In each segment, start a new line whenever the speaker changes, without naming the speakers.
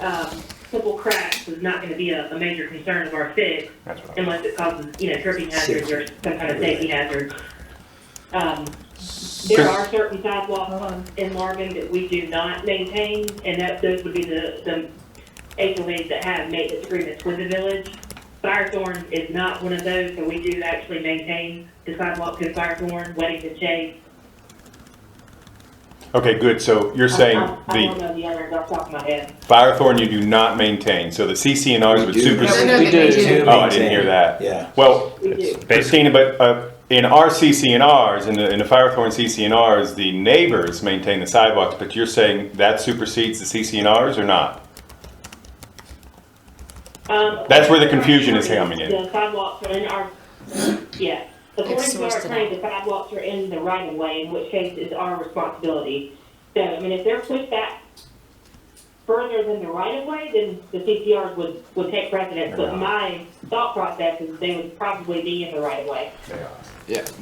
um, football cracks is not going to be a, a major concern of our fix
That's what I
unless it causes, you know, tripping hazards or some kind of safety hazard. Um, there are certain sidewalks in Marvin that we do not maintain, and that, those would be the, the HOAs that have maintenance agreements with the village. Firethorn is not one of those, so we do actually maintain the sidewalk to Firethorn, Weddington Chase.
Okay, good. So you're
I-
saying
I- I don't
the
know the others off the top of my head.
Firethorn you do not maintain, so the CCNRs would
We do.
supersede.
No, no,
We
they
do.
do.
Oh, I didn't hear that.
Yeah.
Well,
We do.
Christina, but uh, in our CCNRs, in the, in the Firethorn CCNRs, the neighbors maintain the sidewalks, but you're saying that supersedes the CCNRs or not?
Um,
That's where the confusion is coming in.
The sidewalks are in our, yeah. According to our
sourced it
claim, the sidewalks are in the right of way, in which case it's our responsibility. So, I mean, if they're pushed back further than the right of way, then the CCRs would, would take precedence. But my thought process is they would probably be in the right of way.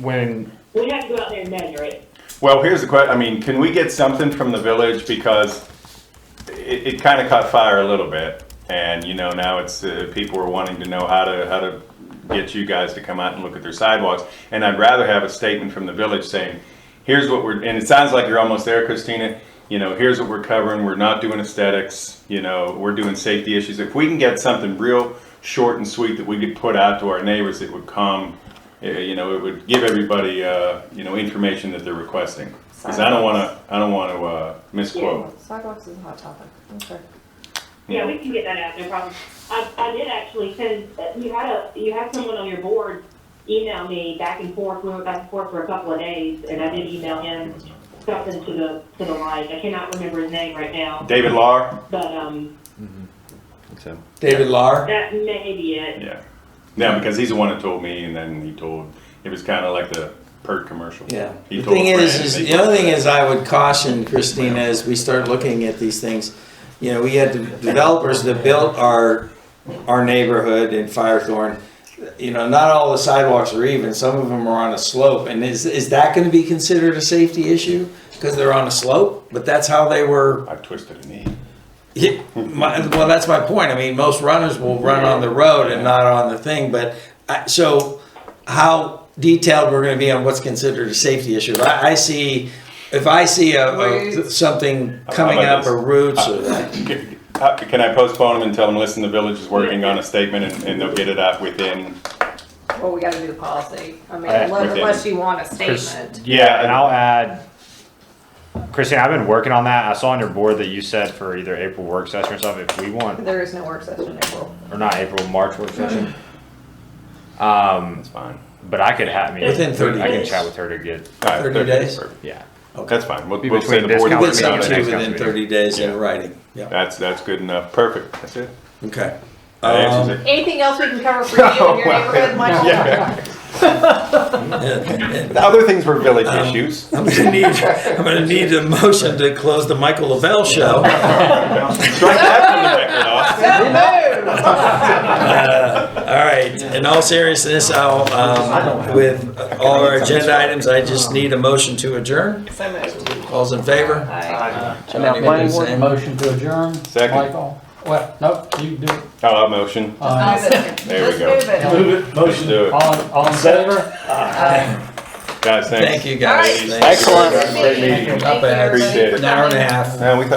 When
We'd have to go out there and measure it.
Well, here's the question. I mean, can we get something from the village because it, it kind of caught fire a little bit, and you know now it's uh, people are wanting to know how to how to get you guys to come out and look at their sidewalks. And I'd rather have a statement from the village saying, "Here's what we're." And it sounds like you're almost there, Christina. You know, here's what we're covering. We're not doing aesthetics. You know, we're doing safety issues. If we can get something real short and sweet that we could put out to our neighbors, it would come. uh, You know, it would give everybody uh, you know information that they're requesting. Because I don't want to. I don't want to uh, misquote.
Sidewalks is a hot topic. Okay.
Yeah, we can get that out, no problem. I, I did actually send, you had a, you had someone on your board email me back and forth, we went back and forth for a couple of days, and I did email him something to the, to the like, I cannot remember his name right now,
David Lahr?
but, um,
David Lar.
that may be it.
Yeah. Yeah, because he's the one that told me, and then he told, it was kind of like the PERT commercial.
Yeah.
He
The
told
thing
a
is,
friend,
is
they
the other
told
thing
a
is, I would caution Christina as we start looking at these things. You know, we had the developers that built our our neighborhood in Firethorn. You know, not all the sidewalks are even. Some of them are on a slope, and is is that going to be considered a safety issue because they're on a slope? But that's how they were
friend. I've twisted a knee.
Yeah, my, well, that's my point. I mean, most runners will run on the road and not on the thing, but I, so how detailed we're going to be on what's considered a safety issue? If I, I see, if I see a, a, something coming
about
up
this?
or roots or
Can how- can I postpone him and tell him, listen, the village is working on a statement, and, and they'll get it out within?
Well, we gotta do the policy. I mean,
Uh,
unless,
within-
unless you want a
Chris-
statement.
Yeah.
yeah, and I'll add, Christine, I've been working on that. I saw on your board that you said for either April work session or stuff. If we want,
There is no work session in April.
or not April, March work session. Um,
That's fine.
but I could have I mean,
Within 30
I can
days.
chat with her to get
All right,
30 days?
perfect.
yeah.
That's fine. We'll,
Be
we'll say
between
the board.
you
discount
works
get
Council
on
something
it
meeting
to
and
next time.
within
council meeting.
thirty days
Yeah.
in writing. Yeah.
That's, that's good enough. Perfect. That's it.
Um, Okay.
That
Um,
answers it.
Anything else we can cover for you in your
Well,
neighborhood, Michael?
Oh, yeah. The other things were village issues.
Um, I'm going to need. I'm going to need a motion to close the Michael Lavelle show.
Strike that from the record off.
Uh, All right, in all seriousness, I'll, um, with all our agenda items, I just need a motion to adjourn.
So moved.
All's in favor?
Aye.
And now
Johnny,
planning
do the
board,
same.
motion to adjourn.
Second.
Michael, well, nope, you do. it.
Oh, I'll motion.
Uh,
There we
Just
go.
move it.
Motion. Do it.
All, all in favor?
Guys, thanks.
Thank you, guys.
All right.
Thanks.
Excellent.
Thank you,
Up ahead.
everybody,
Appreciate
for
it.
An hour and a
coming.
half.
Yeah, we thought